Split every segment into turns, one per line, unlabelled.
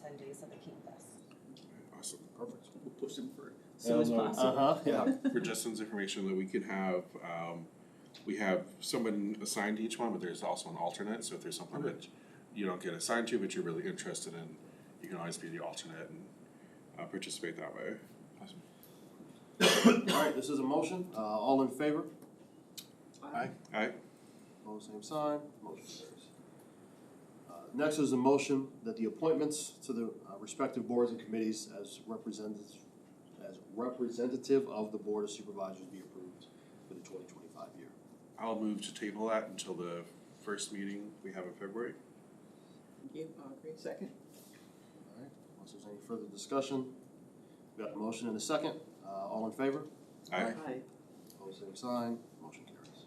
ten days of the King Fest.
Awesome.
Perfect. We'll push them for as
Yeah,
soon as
no,
possible.
Uh-huh, yeah.
For Justin's information, that we could have, um, we have someone assigned to each one, but there's also an alternate, so if there's something that you don't get assigned to, but you're really interested in, you can always be the alternate and, uh, participate that way.
All right, this is a motion. Uh, all in favor?
Aye. Aye.
All same sign. Motion carries. Uh, Next is a motion that the appointments to the uh, respective boards and committees as representatives, as representative of the Board of Supervisors be approved for the twenty twenty-five year.
I'll move to table that until the first meeting we have in February.
Thank you, I'll agree. Second?
All right, unless there's any further discussion, we got a motion and a second. Uh, all in favor?
Aye.
All same sign, motion carries.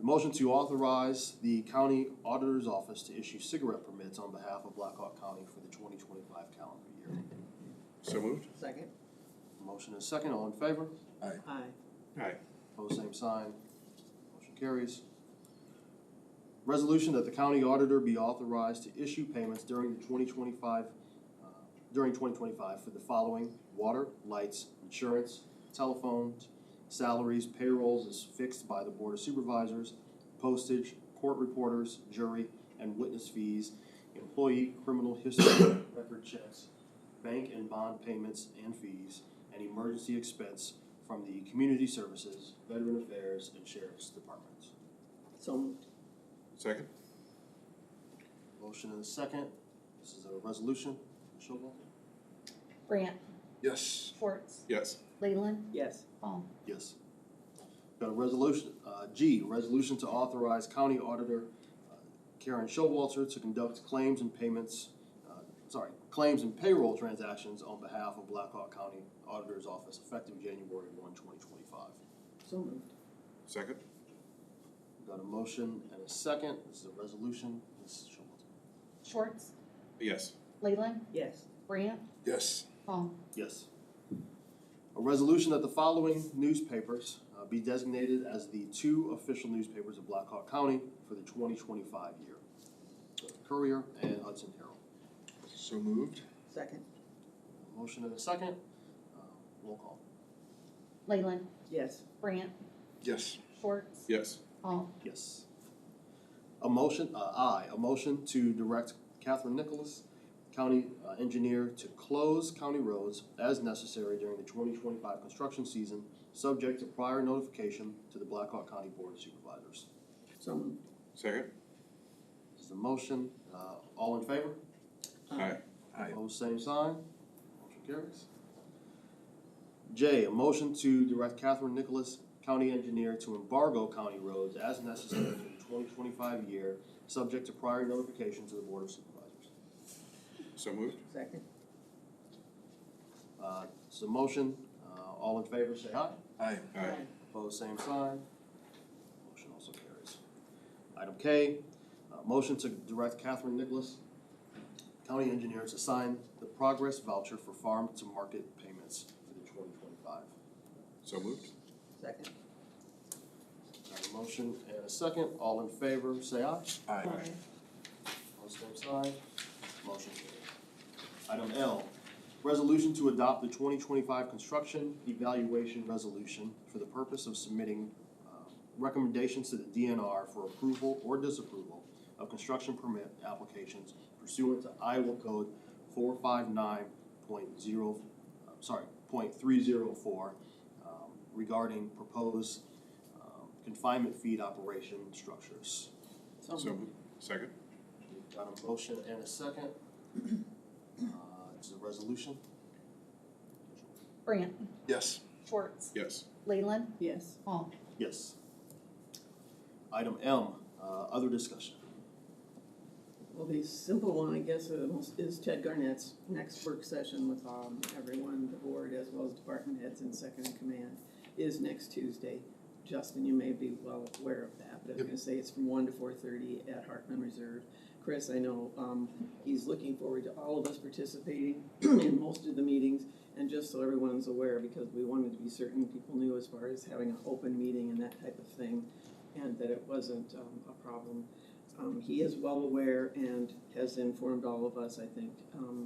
A motion to authorize the county auditor's office to issue cigarette permits on behalf of Blackhawk County for the twenty twenty-five calendar year.
So moved?
Second?
Motion is second, all in favor?
Aye.
Aye.
Opposed, same sign. Motion carries. Resolution that the county auditor be authorized to issue payments during the twenty twenty-five, uh, during twenty twenty-five for the following: water, lights, insurance, telephones, salaries, payrolls is fixed by the Board of Supervisors, postage, court reporters, jury, and witness fees, employee criminal history record checks, bank and bond payments and fees, and emergency expense from the Community Services, Veteran Affairs, and Sheriff's Departments.
So moved.
Second?
Motion and a second. This is a resolution. Ms. Schulman?
Brant,
Yes.
Schwartz,
Yes.
Leyland,
Yes.
Paul.
Yes. Got a resolution, uh, G, resolution to authorize County Auditor uh, Karen Showalter to conduct claims and payments, uh, sorry, claims and payroll transactions on behalf of Blackhawk County Auditor's Office effective January one, twenty twenty-five.
So moved.
Second?
Got a motion and a second. This is a resolution. Ms. Showalter?
Schwartz,
Yes.
Leyland,
Yes.
Brant,
Yes.
Paul.
Yes. A resolution that the following newspapers uh, be designated as the two official newspapers of Blackhawk County for the twenty twenty-five year. The Courier and Hudson Herald.
So moved?
Second?
Motion and a second. Uh, Roll call.
Leyland,
Yes.
Brant,
Yes.
Schwartz,
Yes.
Paul.
Yes. A motion, uh, aye, a motion to direct Catherine Nicholas, county uh, engineer, to close county roads as necessary during the twenty twenty-five construction season, subject to prior notification to the Blackhawk County Board of Supervisors.
So moved.
Second?
This is a motion, uh, all in favor?
Aye. Aye.
Opposed, same sign, motion carries. J, a motion to direct Catherine Nicholas, county engineer, to embargo county roads as necessary for the twenty twenty-five year, subject to prior notification to the Board of Supervisors.
So moved?
Second?
Uh, it's a motion, uh, all in favor, say aye.
Aye. Aye.
Opposed, same sign. Motion also carries. Item K, uh, motion to direct Catherine Nicholas, county engineer, to sign the progress voucher for farm to market payments for the twenty twenty-five.
So moved?
Second?
Got a motion and a second, all in favor, say aye.
Aye.
Opposed, same sign. Motion carries. Item L, resolution to adopt the twenty twenty-five construction evaluation resolution for the purpose of submitting uh, recommendations to the DNR for approval or disapproval of construction permit applications pursuant to Iowa Code four five nine point zero, sorry, point three zero four um, regarding proposed um, confinement feed operation structures.
So
So
moved.
moved? Second?
We've got a motion and a second. Uh, It's a resolution.
Brant,
Yes.
Schwartz,
Yes.
Leyland,
Yes.
Paul.
Yes. Item M, uh, other discussion.
Well, the simple one, I guess, uh, is Ted Garnett's next work session with um, everyone, the board as well as department heads and second in command, is next Tuesday. Justin, you may be well aware of that, but I was gonna say it's from one to four thirty at Hartman Reserve. Chris, I know, um, he's looking forward to all of us participating in most of the meetings. And just so everyone's aware, because we wanted to be certain people knew as far as having an open meeting and that type of thing, and that it wasn't um, a problem Um, he is well aware and has informed all of us, I think, um,